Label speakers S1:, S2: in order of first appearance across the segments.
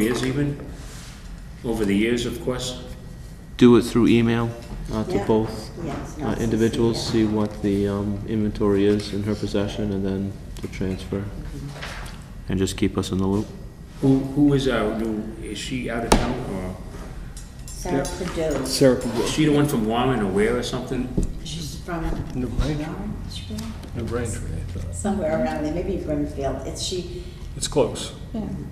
S1: years even, over the years, of course.
S2: do it through email uh, to
S3: Yeah.
S2: both
S3: Yes,
S2: uh,
S3: not CC,
S2: individuals,
S3: yeah.
S2: see what the um, inventory is in her possession, and then to transfer.
S3: Mm-hmm.
S2: And just keep us in the loop.
S1: Who, who is our new, is she out of town
S3: Sarah Perdue,
S4: Sarah,
S1: or, is she the one from Warren or where or something?
S3: she's from
S4: New Braintree,
S3: Orangeburg?
S4: New Braintree, I thought.
S3: somewhere around there, maybe Brimfield. It's she,
S4: It's close,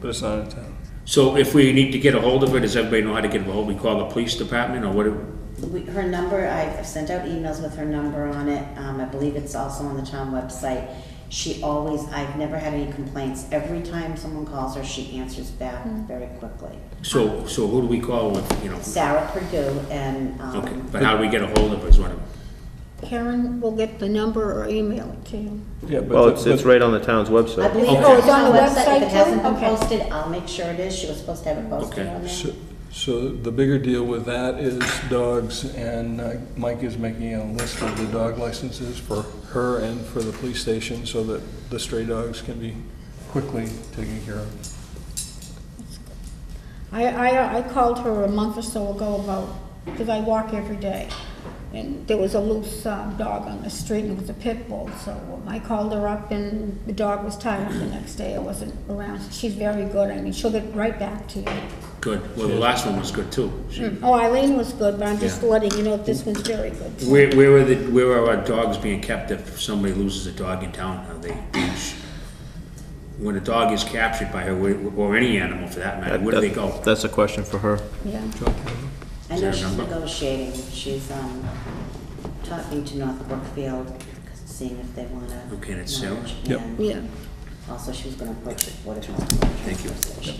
S4: but it's not in town.
S1: So if we need to get a hold of her, does everybody know how to get a hold? We call the police department or what? do-
S3: we- her number, I've sent out emails with her number on it. Um, I believe it's also on the town website. She always, I've never had any complaints. Every time someone calls her, she answers back
S5: Hmm.
S3: very quickly.
S1: So, so who do we call, you know?
S3: Sarah Perdue and,
S1: Okay,
S3: um,
S1: but how do we get a hold of her is what I'm-
S5: Karen will get the number or email it to you.
S4: Yeah, but
S2: Well,
S4: the-
S2: it's, it's
S4: but-
S2: right on the town's
S3: I
S2: website.
S3: believe
S1: Okay.
S3: it's
S1: Oh,
S3: on
S5: it's on
S3: the
S5: the
S3: website. If it
S5: website too?
S3: hasn't been
S5: Okay.
S3: posted, I'll make sure it is. She was supposed to have it posted
S1: Okay.
S3: on there.
S4: So, so the bigger deal with that is dogs, and uh, Mike is making a list of the dog licenses for her and for the police station, so that the stray dogs can be quickly taken care of.
S5: I, I, I called her a month or so ago about, because I walk every day, and there was a loose uh, dog on the street, and it was a pit bull, so um, I called her up, and the dog was tied up the next day, it wasn't around. She's very good, I mean, she'll get right back to
S2: Mm-hmm.
S5: you.
S1: Good, well, the last one was good too. She-
S5: Oh, Eileen was good, but I'm just
S1: Yeah.
S5: letting you know, this one's very good. too.
S1: Where, where are the, where are our dogs being kept if somebody loses a dog in town? Are they, when a dog is captured by her, where- or any animal for that matter, where do they go?
S2: That's a question for her.
S3: I
S5: Yeah.
S3: know
S1: Is there a
S3: she's
S1: number?
S3: negotiating, she's, um, talking to North Brookfield, seeing if they wanna.
S1: Okay, and it's Sarah?
S3: merge,
S4: Yep.
S3: and
S5: Yeah.
S3: Also, she was gonna approach the Board of Health.
S1: Thank you.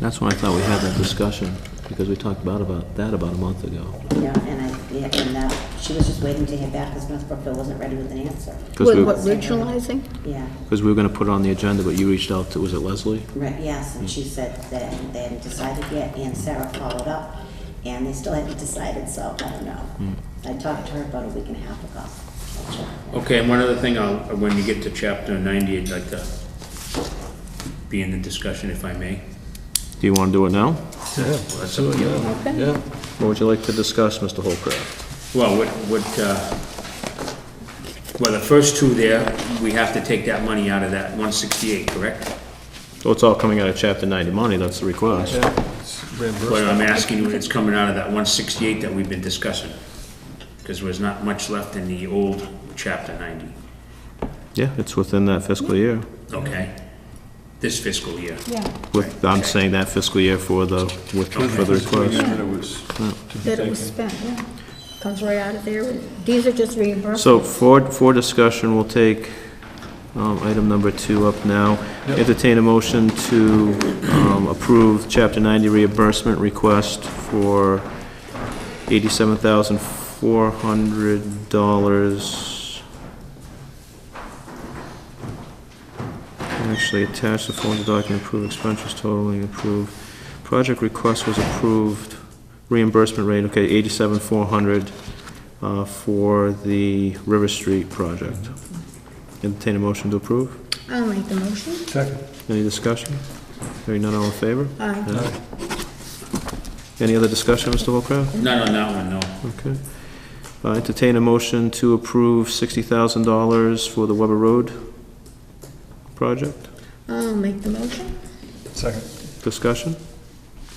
S2: That's why I thought we had that discussion, because we talked about, about that about a month ago.
S3: Yeah, and I, yeah, and, uh, she was just waiting to hear back, cause North Brookfield wasn't ready with an answer.
S2: Because
S5: With
S2: we,
S5: what, regionalizing?
S3: Yeah,
S2: because we were gonna put it on the agenda, but you reached out to, was it Leslie?
S3: right, yes, and she said that they hadn't decided yet, and Sarah followed up, and they still hadn't decided, so I don't
S1: Hmm.
S3: know. I talked to her about a week and a half ago. I'll check.
S1: Okay, and one other thing, I'll, when you get to chapter ninety, I'd like to be in the discussion if I may.
S2: Do you wanna do it now?
S1: Well, that's up to you.
S5: Okay.
S4: Yeah,
S2: What would you like to discuss, Mr. Holcraft?
S1: Well, what, what, uh, well, the first two there, we have to take that money out of that one sixty-eight, correct?
S2: Well, it's all coming out of chapter ninety money, that's the request.
S4: yeah, it's reimbursed.
S1: But I'm asking you, it's coming out of that one sixty-eight that we've been discussing, because there's not much left in the old chapter ninety,
S2: Yeah, it's within that fiscal year.
S1: okay? This fiscal year.
S5: Yeah,
S2: With, I'm saying that fiscal year for the, with, for the request.
S4: But it was to be
S5: that it was
S4: taken.
S5: spent, yeah. Comes right out of there, and these are just reimbursements.
S2: So for, for discussion, we'll take, um, item number two up now. Entertain a motion to, um, approve chapter ninety reimbursement request for eighty-seven thousand four hundred dollars. Actually attached the following document, approve expenses totaling approved. Project request was approved, reimbursement rate, okay, eighty-seven four hundred, uh, for the River Street project. Entertain a motion to approve?
S5: I'll make the motion.
S4: Second,
S2: Any discussion? Hearing none, all in favor?
S5: Aye.
S2: Aye. Any other discussion, Mr. Holcraft?
S1: Not on that one, no.
S2: Okay. Uh, Entertain a motion to approve $60,000 for the Weber Road project.
S5: I'll make the motion.
S4: second.
S2: Discussion?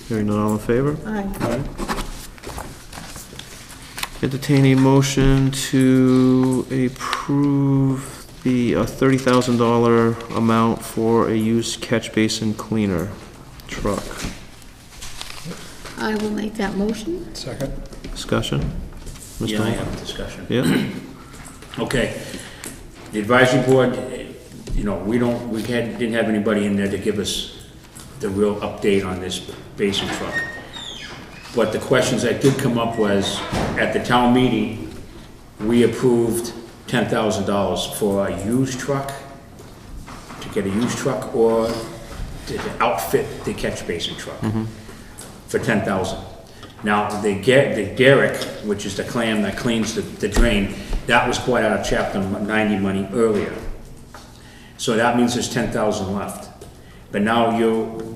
S2: Hearing none, all in favor?
S5: Aye.
S2: Entertain a motion to approve the uh, $30,000 amount for a used catch basin cleaner truck.
S5: I will make that motion.
S4: Second.
S2: Discussion? Mr.
S1: Yeah, I
S2: Holcraft?
S1: have a discussion.
S2: Yeah,
S1: Okay. The advisory board, eh, you know, we don't, we had, didn't have anybody in there to give us the real update on this basin truck. But the questions that did come up was, at the town meeting, we approved ten thousand dollars for a used truck, to get a used truck, or to to outfit the catch basin truck for ten thousand. Now, the get, the derrick, which is the clam that cleans the, the drain, that was quite out of chapter ninety money earlier. So that means there's ten thousand left. But now you,